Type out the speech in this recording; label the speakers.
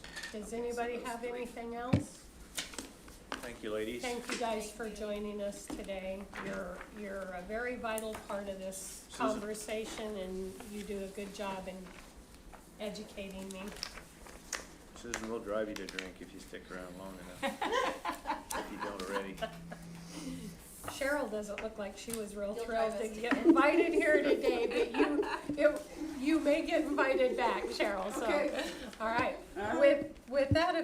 Speaker 1: Does anybody have anything else?
Speaker 2: Thank you, ladies.
Speaker 1: Thank you guys for joining us today. You're, you're a very vital part of this
Speaker 2: Susan.
Speaker 1: conversation and you do a good job in educating me.
Speaker 2: Susan, we'll drive you to drink if you stick around long enough. If you don't already.
Speaker 1: Cheryl doesn't look like she was real
Speaker 3: You'll
Speaker 1: thrilled
Speaker 3: drive
Speaker 1: to
Speaker 3: us
Speaker 1: get invited here today, but you, it- you may get invited back, Cheryl, so. All right. With, with that,